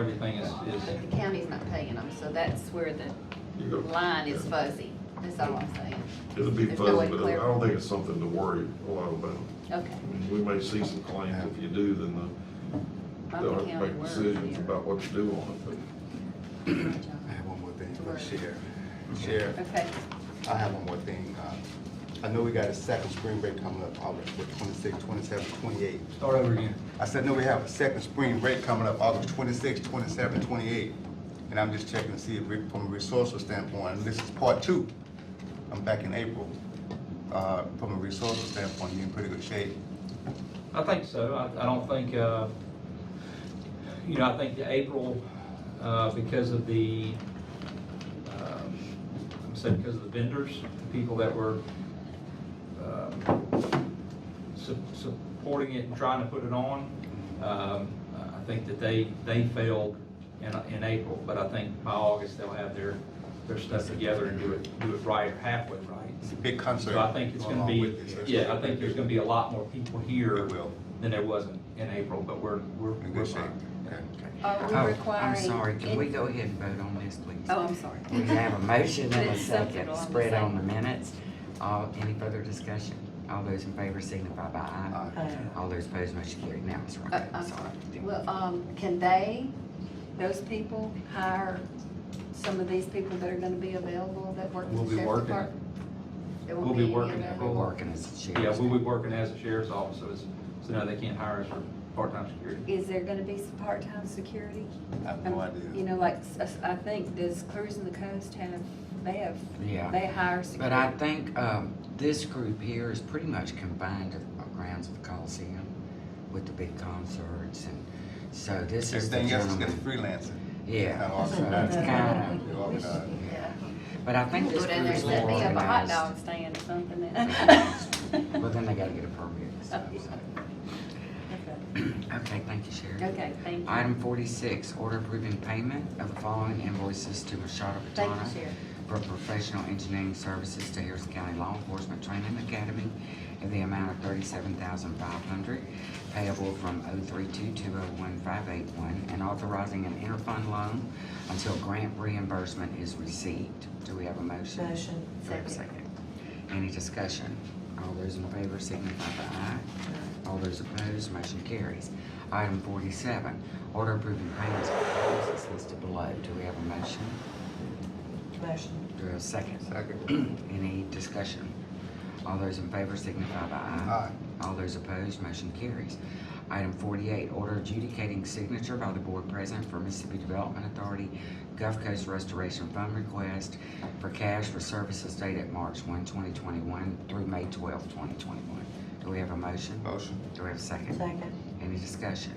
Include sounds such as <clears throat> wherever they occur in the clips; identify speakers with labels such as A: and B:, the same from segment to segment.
A: everything is, is,
B: But the county's not paying them, so that's where the
C: You know,
B: line is fuzzy, that's all I'm saying.
C: It'll be
B: There's no way
C: fuzzy,
B: to
C: but I
B: clarify.
C: don't think it's something to worry a lot about.
B: Okay.
C: I mean, We may see some claims, if you do, then
B: I'm
C: they'll
B: the
C: have to
B: county
C: make
B: worker
C: decisions
B: here.
C: about
B: <coughs>
C: what to do on it,
B: Okay,
D: I have one more thing for the sheriff. Sheriff, I have one more thing. Uh, I know we got a second spring break coming up, August twenty-six, twenty-seven, twenty-eight.
A: start over again.
D: I said, no, we have a second spring break coming up, August twenty-six, twenty-seven, twenty-eight. And I'm just checking to see if, we- from a resourceful standpoint, and this is part two. I'm back in April. Uh, From a resourceful standpoint, you're in pretty good shape.
A: I think so. I, I don't think, uh, you know, I think the April, uh, because of the, um, I'm saying because of the vendors, the people that were, um, su- supporting it and trying to put it on, um, I think that they, they failed in, in April, but I think by August they'll have their, their stuff together and do it, do it right or halfway right.
D: It's a big concert.
A: So I think it's gonna
D: along
A: be,
D: with this.
A: yeah, I think there's gonna be a lot more people here
D: There will.
A: than there was in, in April, but we're, we're.
D: In
A: we're
D: good shape.
A: fine.
D: Okay.
B: Are we
E: Oh,
B: requiring?
E: I'm sorry, can we
B: any-
E: go ahead and vote on this, please?
B: Oh, I'm sorry.
E: We
B: <laughs>
E: have a motion and a
B: It's something
E: second,
B: along the
E: spread
B: same-
E: on the minutes. All, any further discussion? All those in favor signify by aye.
D: Aye.
E: All those opposed, motion carried. Now, Ms.
B: Uh,
E: Ronco,
B: I'm
E: sorry.
B: sorry. Well, um, can they, those people hire some of these people that are gonna be available that work
A: We'll
B: in the
A: be
B: sheriff's
A: working it.
B: department? There won't
A: We'll be
B: any
A: working it.
E: We're
B: available?
E: working as a
A: Yeah,
E: sheriff's.
A: we'll be working as a sheriff's office, so it's, so now they can't hire us for part-time security.
B: Is there gonna be some part-time security?
D: I have no idea.
B: You know, like, s- s- I think, does Cruising the Coast have, they have,
E: Yeah.
B: they hire
E: But I
B: security?
E: think, um, this group here is pretty much confined to the grounds of the Coliseum with the big concerts and, so this is the
D: Everything else is
E: gentleman.
D: just freelancing.
E: Yeah,
D: Kinda
E: so
D: organized.
E: it's kind
D: They're organized.
E: of, yeah.
B: Yeah.
E: But I think
B: We'll
E: this
B: Go down
E: group
B: there
E: is
B: and
E: more
B: set me up a hot dog
E: organized.
B: stand or something.
E: Well, <laughs>
B: and-
E: then they gotta get a permit and stuff, so. Okay, thank you, Sherry.
B: <laughs> Okay, thank you.
E: Item forty-six, order approving payment of the following invoices to Machado
B: Thank you,
E: Patana
B: Sherry.
E: for professional engineering services to Harrison County Law Enforcement Training Academy in the amount of thirty-seven thousand five hundred payable from oh three two two oh one five eight one and authorizing an interfund loan until grant reimbursement is received. Do we have a motion?
F: Motion.
E: Do we have a second? Any discussion? All those in favor signify by aye. All those opposed, motion carries. Item forty-seven, order approving payments for services listed below. Do we have a motion?
F: Motion.
E: Do we have a second?
D: Second.
E: <clears throat> Any discussion? All those in favor signify by aye. All those opposed, motion carries. Item forty-eight, order adjudicating signature by the board president for Mississippi Development Authority Gulf Coast Restoration Fund request for cash for services dated March 1, 2021, through May 12, 2021. Do we have a motion?
D: Motion.
E: Do we have a second?
F: Second.
E: Any discussion?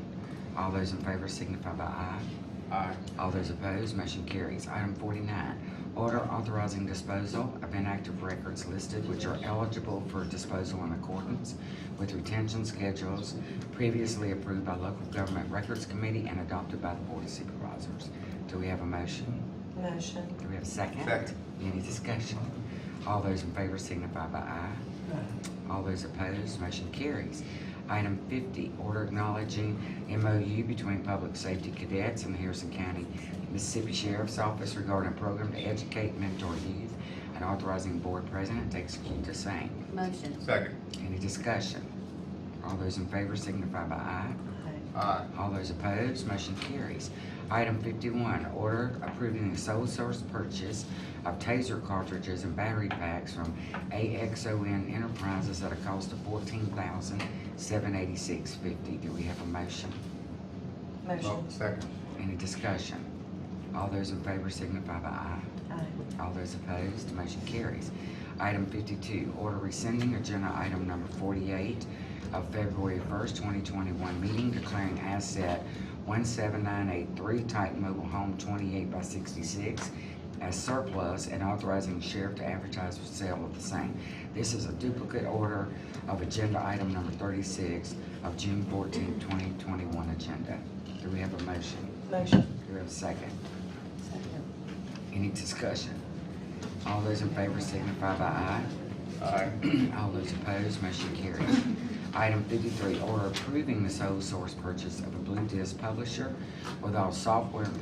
E: All those in favor signify by aye.
D: Aye.
E: All those opposed, motion carries. Item forty-nine, order authorizing disposal of inactive records listed which are eligible for disposal in accordance with retention schedules previously approved by local government records committee and adopted by the board of supervisors. Do we have a motion?
F: Motion.
E: Do we have a second?
D: Second.
E: Any discussion? All those in favor signify by aye. All those opposed, motion carries. Item fifty, order acknowledging MOU between Public Safety Cadets and the Harrison County Mississippi Sheriff's Office regarding a program to educate mentor youth and authorizing board president to execute the same.
B: Motion.
D: Second.
E: Any discussion? All those in favor signify by aye.
D: Aye.
E: All those opposed, motion carries. Item fifty-one, order approving the sole source purchase of taser cartridges and battery packs from AXON Enterprises at a cost of fourteen thousand, seven eighty-six fifty. Do we have a motion?
D: Oh,
F: Motion.
D: Second.
E: Any discussion? All those in favor signify by aye.
F: Aye.
E: All those opposed, motion carries. Item fifty-two, order rescinding agenda item number forty-eight of February first, twenty twenty-one meeting declaring asset one seven nine eight three type mobile home twenty-eight by sixty-six as surplus and authorizing the sheriff to advertise for sale of the same. This is a duplicate order of agenda item number thirty-six of June fourteenth, twenty twenty-one agenda. Do we have a motion?
F: Motion.
E: Do we have a second? Any discussion? All those in favor signify by aye.
D: Aye.
E: <clears throat> All those opposed, motion carries. <clears throat> Item fifty-three, order approving the sole source purchase of a Blue Disc publisher with all software and